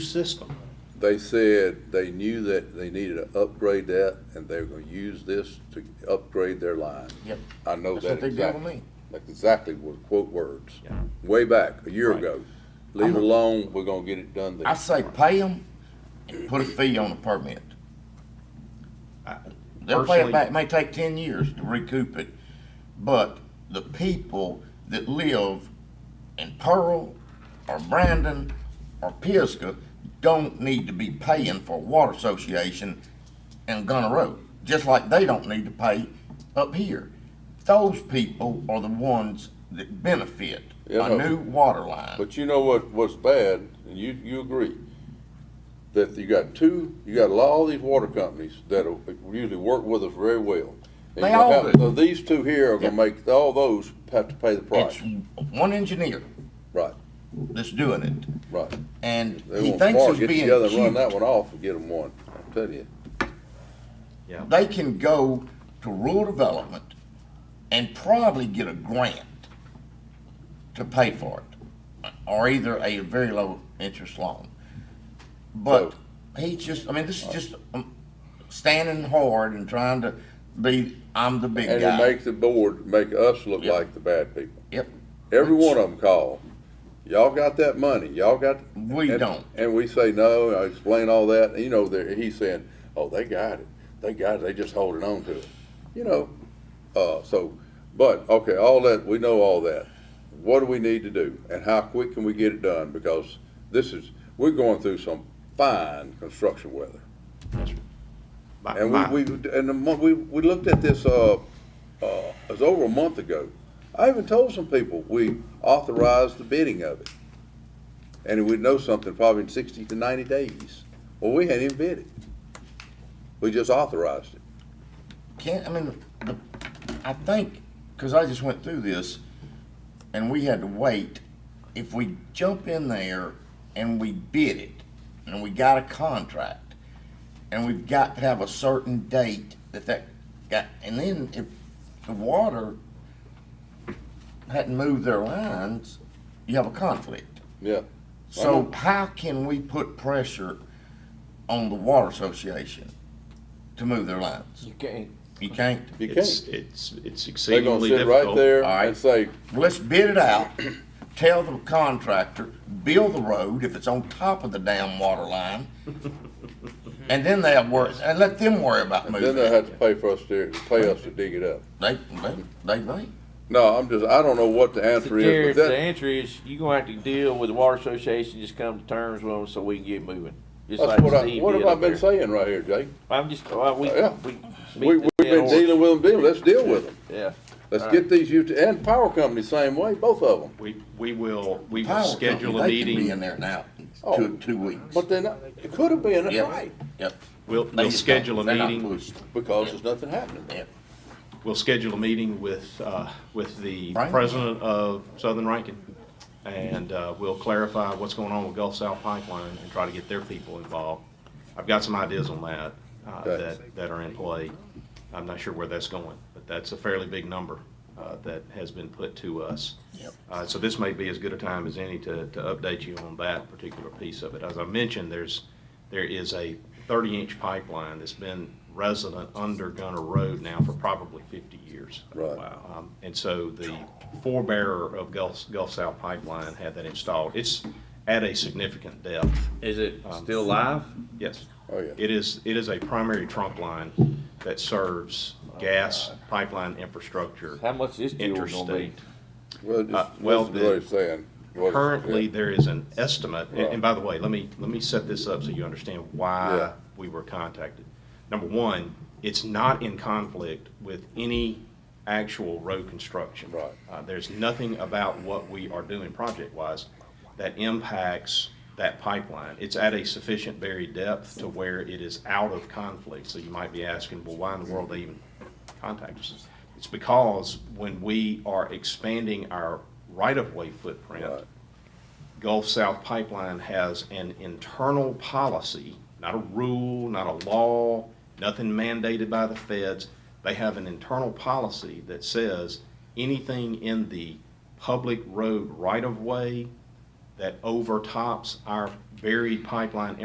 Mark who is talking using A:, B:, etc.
A: system.
B: They said they knew that they needed to upgrade that, and they were gonna use this to upgrade their line.
C: Yep.
B: I know
C: That's
B: that
C: what they
B: exactly.
C: did with me.
B: That's exactly what, quote words.
A: Yeah.
B: Way back, a year
A: Right.
B: ago. Leave it alone, we're gonna get it done
C: I
B: there.
C: say pay them and put a fee on the permit.
A: I-
C: They'll pay
A: personally-
C: it back, it may take ten years to recoup it, but the people that live in Pearl or Brandon or Pisgah don't need to be paying for a water association in Gunner Road, just like they don't need to pay up here. Those people are the ones that benefit
B: Yeah,
C: a
B: but-
C: new water line.
B: But you know what, what's bad, and you, you agree, that you got two, you got a lot of these water companies that are- usually work with us very well. And
C: They
B: you
C: all
B: have-
C: do.
B: So these two here are gonna
C: Yeah.
B: make, all those have to pay the
C: It's
B: price.
C: one engineer
B: Right,
C: that's doing it.
B: right.
C: And
B: They
C: he
B: want
C: thinks
B: Mark
C: he's
B: get
C: being
B: together and Run
C: cute.
B: that one off and get them one, I tell you.
A: Yeah.
C: They can go to rural development and probably get a grant to pay for it, or either a very low interest loan. But he just, I mean, this is just um, standing hard and trying to be, I'm the big
B: And
C: guy.
B: it makes the board, make us look
C: Yeah.
B: like the bad people.
C: yep.
B: Every
C: Which-
B: one of them call, y'all got that money, y'all got.
C: We
B: and-
C: don't.
B: And we say, no, and I explain all that, and you know, they're- he's saying, oh, they got it, they got it, they just holding on to it, you know? Uh, so, but, okay, all that, we know all that. What do we need to do, and how quick can we get it done? Because this is, we're going through some fine construction weather.
A: My-
B: And
A: my-
B: we, we, and the month, we, we looked at this, uh, uh, it was over a month ago. I even told some people, we authorized the bidding of it. And we'd know something probably in sixty to ninety days. Well, we hadn't even bid it. We just authorized it.
C: Can't, I mean, the, I think, because I just went through this, and we had to wait, if we jump in there and we bid it, and we got a contract, and we've got to have a certain date that that got, and then if the water hadn't moved their lines, you have a conflict.
B: Yeah.
C: So how can we put pressure on the water association to move their lines?
D: You can't.
C: You can't.
B: You
A: It's,
B: can't.
A: it's, it's
B: They're gonna
A: exceedingly
B: sit right
A: difficult.
B: there
C: All right.
B: and say,
C: Let's bid it out, tell the contractor, build the road if it's on top of the damn water line. And then they'll worry, and let them worry about
B: and then
C: moving
B: they
C: it.
B: have to pay for us to, pay us to dig it up.
C: They, they, they may.
B: No, I'm just, I don't know what the answer is,
D: Jared,
B: but
D: the
B: that,
D: answer is, you're gonna have to deal with the water association, just come to terms with them so we can get moving. Just like
B: that's what I,
D: Steve
B: what
D: did
B: have I
D: up
B: been
D: there.
B: saying right here, Jake?
D: I'm just, well, we,
B: Yeah.
D: we.
B: We, we've
D: beat the dead
B: been
D: horse.
B: dealing with them, dealing, let's deal with them.
D: Yeah.
B: Let's
D: All
B: get these ut- and power companies same way, both of them.
A: We, we will, we will
C: Power
A: schedule a
C: company, They could be
A: meeting,
C: in there now,
B: Oh.
C: two, two weeks.
B: But then it could have been
C: Yep,
B: right
C: Yep.
A: we'll,
C: They
A: we'll
C: just
A: schedule a
C: don't- they're not
A: meeting,
C: pushed.
B: because there's nothing happening.
A: Uh,
C: Yep.
A: we'll schedule a meeting with, uh, with the
C: Rankin.
A: president of Southern Rankin. And, uh, we'll clarify what's going on with Gulf South Pipeline and try to get their people involved. I've got some ideas on that, uh,
B: Okay.
A: that, that are in play. I'm not sure where that's going, but that's a fairly big number, uh, that has been put to us.
C: Yep.
A: Uh, So this may be as good a time as any to, to update you on that particular piece of it. As I mentioned, there's, there is a 30-inch pipeline that's been resident under Gunner Road now for probably 50 years.
B: Right.
A: Um, And so the forebearer of Gulf, Gulf South Pipeline had that installed. It's at a significant depth,
D: Is it still live?
A: yes.
B: Oh, yeah.
A: It is, it is a primary trunk line that serves gas pipeline infrastructure
D: How much is fuel gonna be?
A: interstate.
B: Well,
A: Uh,
B: just,
A: well,
B: just really
A: the-
B: saying. what is-
A: Currently,
B: yeah.
A: there is an estimate, and-
B: Right.
A: and by the way, let me, let me set this up so you understand why
B: Yeah.
A: we were contacted. Number one, it's not in conflict with any actual road construction.
B: Right.
A: Uh, there's nothing about what we are doing project-wise that impacts that pipeline. It's at a sufficient buried depth to where it is out of conflict. So you might be asking, well, why in the world they even contact us? It's because when we are expanding our right-of-way footprint,
B: Right.
A: Gulf South Pipeline has an internal policy, not a rule, not a law, nothing mandated by the feds. They have an internal policy that says anything in the public road right-of-way that overtops our buried pipeline